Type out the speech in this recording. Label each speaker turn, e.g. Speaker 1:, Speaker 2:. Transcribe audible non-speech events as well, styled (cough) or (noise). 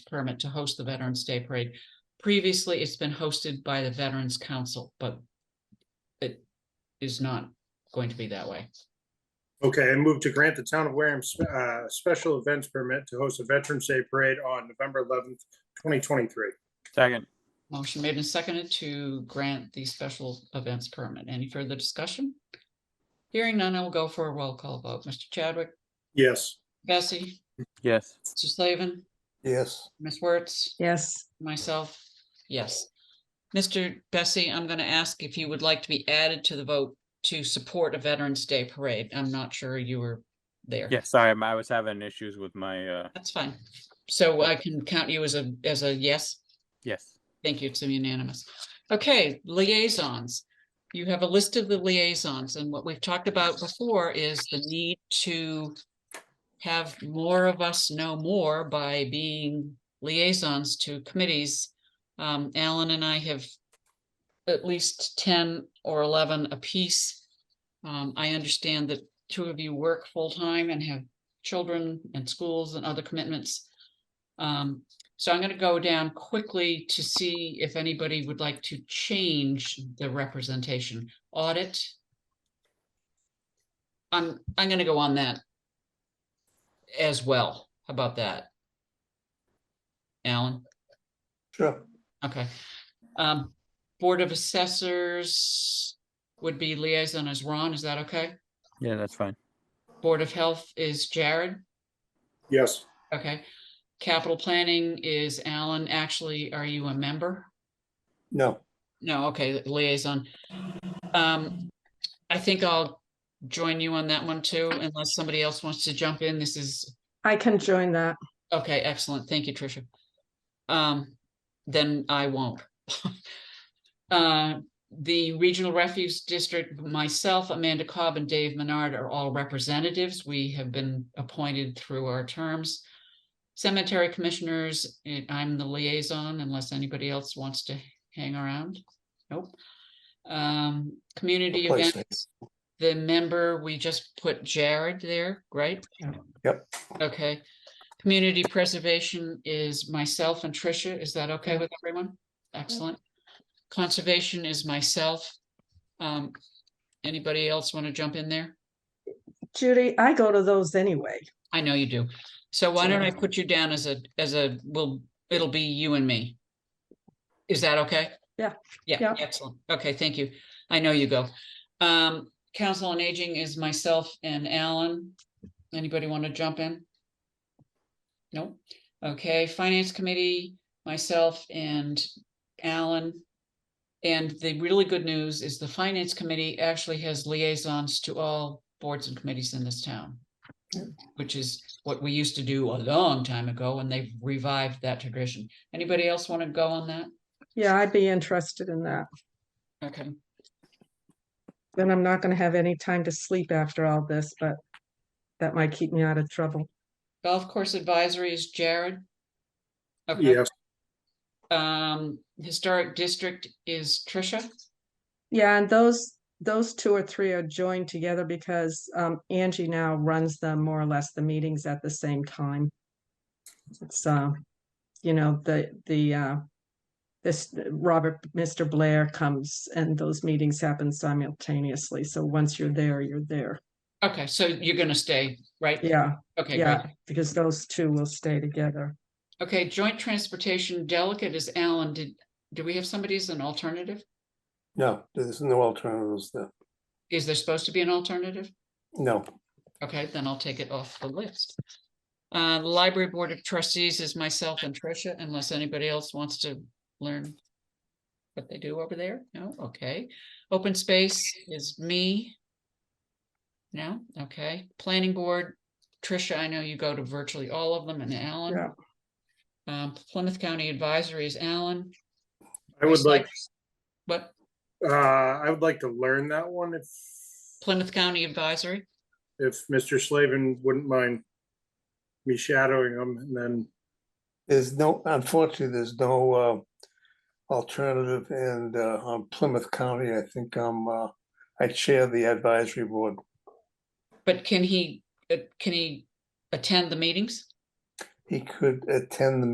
Speaker 1: permit to host the Veterans Day Parade. Previously, it's been hosted by the Veterans Council, but it is not going to be that way.
Speaker 2: Okay, I move to grant the town of Wareham sp- uh, special events permit to host a Veterans Day Parade on November eleventh, twenty twenty-three.
Speaker 3: Second,
Speaker 1: Motion made and seconded to grant the special events permit. Any further discussion? Hearing none, I will go for a roll call vote. Mr. Chadwick,
Speaker 2: Yes,
Speaker 1: Bessie,
Speaker 3: yes,
Speaker 1: Mr. Slavin,
Speaker 4: yes,
Speaker 1: Ms. Wertz,
Speaker 5: yes,
Speaker 1: myself, yes. Mr. Bessie, I'm going to ask if you would like to be added to the vote to support a Veterans Day Parade. I'm not sure you were there.
Speaker 3: yes. Sorry, I'm- I was having issues with my, uh,
Speaker 1: That's fine. So I can count you as a, as a yes?
Speaker 3: yes.
Speaker 1: Thank you, it's unanimous. Okay, liaisons. You have a list of the liaisons, and what we've talked about before is the need to have more of us know more by being liaisons to committees. Um, Alan and I have at least ten or eleven apiece. Um, I understand that two of you work full-time and have children and schools and other commitments. Um, so I'm gonna go down quickly to see if anybody would like to change the representation audit. I'm, I'm gonna go on that as well. How about that? Alan,
Speaker 4: sure,
Speaker 1: okay. Um, Board of Assessors would be liaison as Ron, is that okay?
Speaker 3: Yeah, that's fine.
Speaker 1: Board of Health is Jared?
Speaker 2: yes,
Speaker 1: Okay, capital planning is Alan. Actually, are you a member?
Speaker 4: no,
Speaker 1: No, okay, liaison. Um, I think I'll join you on that one too, unless somebody else wants to jump in. This is,
Speaker 5: I can join that.
Speaker 1: okay, excellent. Thank you, Tricia. Um, then I won't. (laughs) Uh, the Regional Refuge District, myself, Amanda Cobb and Dave Menard are all representatives. We have been appointed through our terms. Cemetery Commissioners, eh, I'm the liaison unless anybody else wants to hang around. Nope. Um, community
Speaker 4: Replace me.
Speaker 1: events, the member, we just put Jared there, right?
Speaker 4: Yep.
Speaker 1: Okay. Community preservation is myself and Tricia. Is that okay with everyone? Excellent. Conservation is myself. Um, anybody else want to jump in there?
Speaker 5: Judy, I go to those anyway.
Speaker 1: I know you do. So why don't I
Speaker 5: Sure.
Speaker 1: put you down as a, as a, will, it'll be you and me. Is that okay?
Speaker 5: Yeah.
Speaker 1: Yeah,
Speaker 5: Yeah.
Speaker 1: excellent. Okay, thank you. I know you go. Um, Council on Aging is myself and Alan. Anybody want to jump in? No? Okay, Finance Committee, myself and Alan. And the really good news is the Finance Committee actually has liaisons to all boards and committees in this town which is what we used to do a long time ago, and they've revived that tradition. Anybody else want to go on that?
Speaker 5: Yeah, I'd be interested in that.
Speaker 1: Okay,
Speaker 5: Then I'm not gonna have any time to sleep after all this, but that might keep me out of trouble.
Speaker 1: golf course advisory is Jared. Okay,
Speaker 2: yes,
Speaker 1: um, historic district is Tricia.
Speaker 5: Yeah, and those, those two or three are joined together because um Angie now runs them more or less the meetings at the same time. It's uh, you know, the, the uh. This Robert, Mr. Blair comes and those meetings happen simultaneously, so once you're there, you're there.
Speaker 1: Okay, so you're gonna stay, right?
Speaker 5: Yeah,
Speaker 1: Okay, great.
Speaker 5: yeah, because those two will stay together.
Speaker 1: Okay, joint transportation delegate is Alan. Did, do we have somebody as an alternative?
Speaker 4: no, there's no alternatives there,
Speaker 1: Is there supposed to be an alternative?
Speaker 4: no,
Speaker 1: Okay, then I'll take it off the list. Uh, Library Board of Trustees is myself and Tricia, unless anybody else wants to learn what they do over there? No, okay. Open Space is me. No, okay. Planning Board, Tricia, I know you go to virtually all of them and Alan.
Speaker 5: Yeah.
Speaker 1: Um, Plymouth County Advisory is Alan,
Speaker 2: I would like,
Speaker 1: but
Speaker 2: uh, I would like to learn that one if,
Speaker 1: Plymouth County Advisory,
Speaker 2: if Mr. Slavin wouldn't mind me shadowing him and then,
Speaker 4: there's no, unfortunately, there's no uh. Alternative and uh on Plymouth County, I think I'm uh, I chair the advisory board,
Speaker 1: but can he, uh, can he attend the meetings?
Speaker 4: he could attend the